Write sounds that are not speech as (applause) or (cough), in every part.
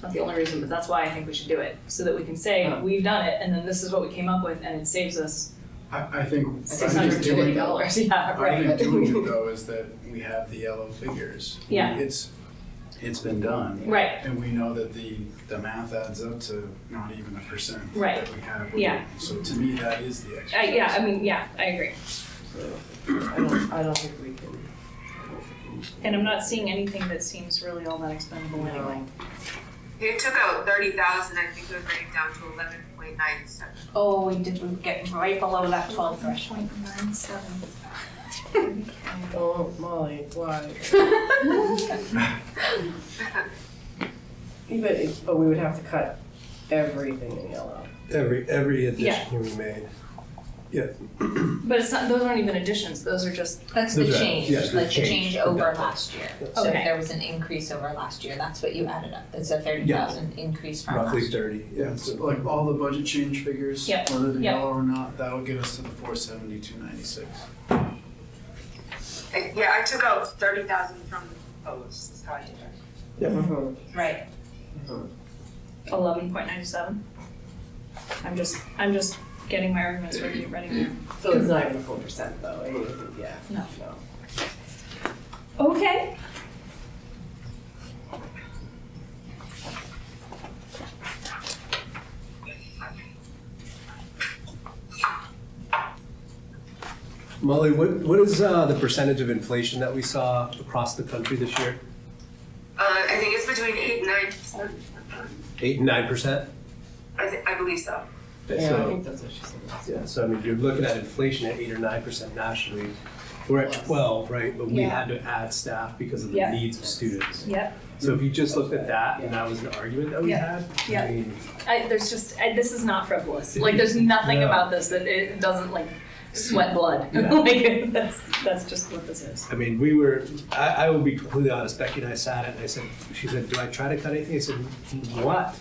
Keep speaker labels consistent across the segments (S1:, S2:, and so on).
S1: That's the only reason, but that's why I think we should do it, so that we can say,
S2: Huh.
S1: we've done it, and then this is what we came up with, and it saves us
S3: I, I think.
S1: six hundred twenty dollars, (laughs) yeah,
S3: I
S1: right.
S3: think
S1: (laughs)
S3: doing it though is that we have the yellow figures.
S1: Yeah.
S3: It's, it's been done.
S1: Right,
S3: And we know that the, the math adds up to not even a percent.
S1: Right.
S3: That we have.
S1: Yeah.
S3: So to me, that is the
S1: I,
S3: exercise.
S1: yeah, I mean, yeah, I agree,
S2: I don't, I don't think we can.
S1: and I'm not seeing anything that seems really all that expendable anyway.
S4: It took out thirty thousand, I think it would bring it down to eleven point nine seven.
S1: Oh, we did, we get right below that twelve threshold.
S2: Oh, Molly, why? Even if, but we would have to cut everything in yellow.
S5: Every, every addition we made.
S1: (laughs) But it's not, those aren't even additions, those are just,
S6: That's the
S5: Those are-
S6: change,
S5: yes, the
S6: the change
S5: change.
S6: over
S5: Yeah.
S6: last year. So if
S1: Okay.
S6: there was an increase over last year, that's what you added up. It's a thirty thousand increase
S1: Uh-huh.
S6: from last
S5: Roughly
S6: year.
S5: thirty,
S3: Yeah,
S5: yeah.
S3: so like all the budget change figures,
S1: Yep,
S3: whether they're
S1: yep.
S3: yellow or not, that would get us to the four seventy, two ninety-six.
S4: Yeah, I took out thirty thousand from those, that's how I did it.
S2: Mhm.
S6: Right.
S1: eleven point nine seven. I'm just, I'm just getting my arguments ready, ready here.
S2: So it's not even a full percent though, I mean, yeah.
S1: No. Okay.
S5: Molly, what, what is, uh, the percentage of inflation that we saw across the country this year?
S4: Uh, I think it's between eight and nine percent,
S5: Eight, and nine percent?
S4: I thi- I believe so.
S2: Yeah, I think that's what she said.
S5: Yeah, so I mean, if you're looking at inflation at eight or nine percent nationally, we're at twelve, right? But we
S1: Yeah.
S5: had to add staff because of the
S1: Yeah.
S5: needs of students.
S1: Yep.
S5: So if you just looked at that and that was an argument that we
S1: Yeah.
S5: had,
S1: Yeah.
S5: I mean,
S1: I, there's just I, this is not
S5: (laughs)
S1: frivolous. Like there's nothing
S5: No.
S1: about this that it doesn't like sweat blood.
S5: Mm. Yeah.
S1: (laughs) like that's that's just what this is.
S5: I mean, we were, I, I will be completely honest, Becky and I sat and I said, she said, do I try to cut anything? I said, what?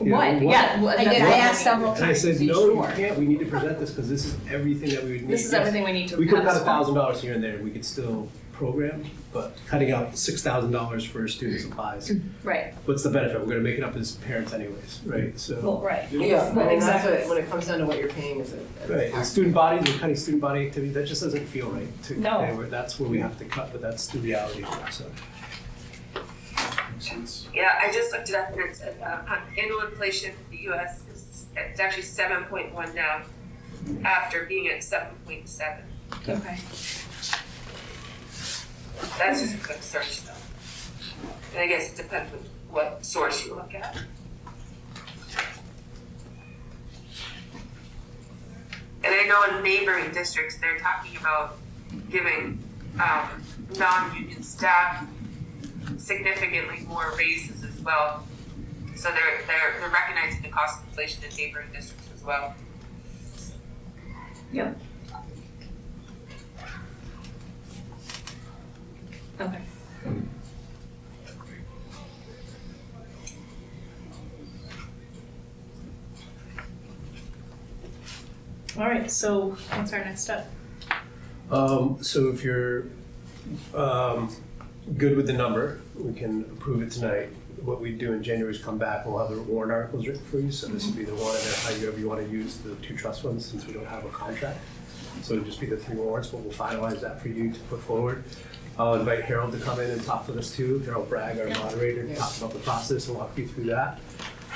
S5: You know,
S1: what? Yeah. well,
S6: I
S1: that's
S6: did, I
S1: what-
S6: asked several
S5: And I
S6: times,
S5: said,
S6: are you
S5: no, you
S6: sure?"
S5: can't, we need to present this because this is everything that we would need.
S1: This is
S5: Yes,
S1: everything we need to.
S5: We could
S1: have
S5: cut a
S1: as well.
S5: thousand dollars here and there, we could still program, but cutting out six thousand dollars for student supplies,
S1: Mm. Right.
S5: what's the benefit? We're gonna make it up as parents anyways, right? So,
S1: Well, right.
S2: Yeah, I
S1: Well,
S2: mean, that's
S1: exactly.
S2: what, when it comes down to what you're paying as a. as a
S5: right, and
S2: tax-
S5: student bodies, we're cutting student body activity, that just doesn't feel right to,
S1: No.
S5: anywhere. that's where we have to cut, but that's the reality, so.
S3: Makes sense.
S4: Yeah, I just looked it up and it said, uh, um, annual inflation in the US is, it's actually seven point one now, after being at seven point seven.
S1: Okay.
S4: That's just a quick search though. And I guess it depends on what source you look at. And I know in neighboring districts, they're talking about giving, um, non-union staff significantly more raises as well. So they're, they're, they're recognizing the cost of inflation in neighboring districts as well.
S1: Okay. All right. So what's our next step?
S5: Um, so if you're, um, good with the number, we can approve it tonight. What we do in January is come back, we'll have the warrant articles written for you, so this would be the one, and then however you wanna use the two trust funds, since we don't have a contract. So it'd just be the three warrants, but we'll finalize that for you to put forward. I'll invite Harold to come in and talk with us too, Harold Bragg, our moderator, to talk about the process and walk you through that.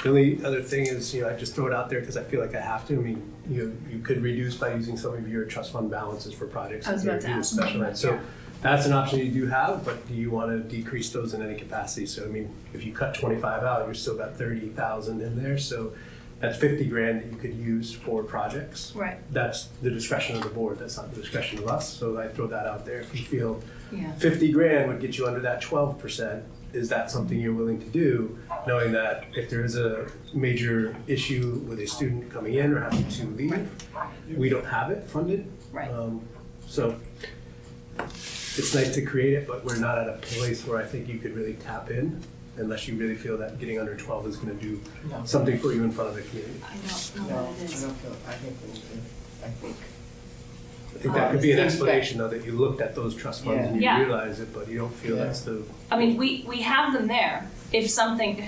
S5: The only other thing is, you know, I just throw it out there because I feel like I have to. I mean, you you could reduce by using some of your trust fund balances for projects.
S1: I was
S5: that
S1: about to
S5: you're- you're
S1: ask
S5: special
S1: about
S5: ed.
S1: that,
S5: So
S1: yeah.
S5: that's an option you do have, but do you want to decrease those in any capacity? So I mean, if you cut twenty-five out, you've still got thirty thousand in there, so that's fifty grand that you could use for projects.
S1: Right.
S5: That's the discretion of the board, that's not the discretion of us, so I throw that out there. If you feel
S1: Yeah.
S5: fifty grand would get you under that twelve percent. Is that something you're willing to do, knowing that if there is a major issue with a student coming in or having to leave, we don't have it funded?
S1: Right.
S5: Um, So it's nice to create it, but we're not at a place where I think you could really tap in unless you really feel that getting under twelve is gonna do
S2: No.
S5: something for you in front of the community.
S1: I don't
S2: No, I don't feel, I think we need to, I think.
S5: I think that could be an
S2: Honestly, but-
S5: explanation though, that you looked at those trust funds and you
S1: Yeah. Yeah.
S5: realize it, but you don't feel
S2: Yeah.
S5: that's the
S1: I mean, we, we have them there. If something,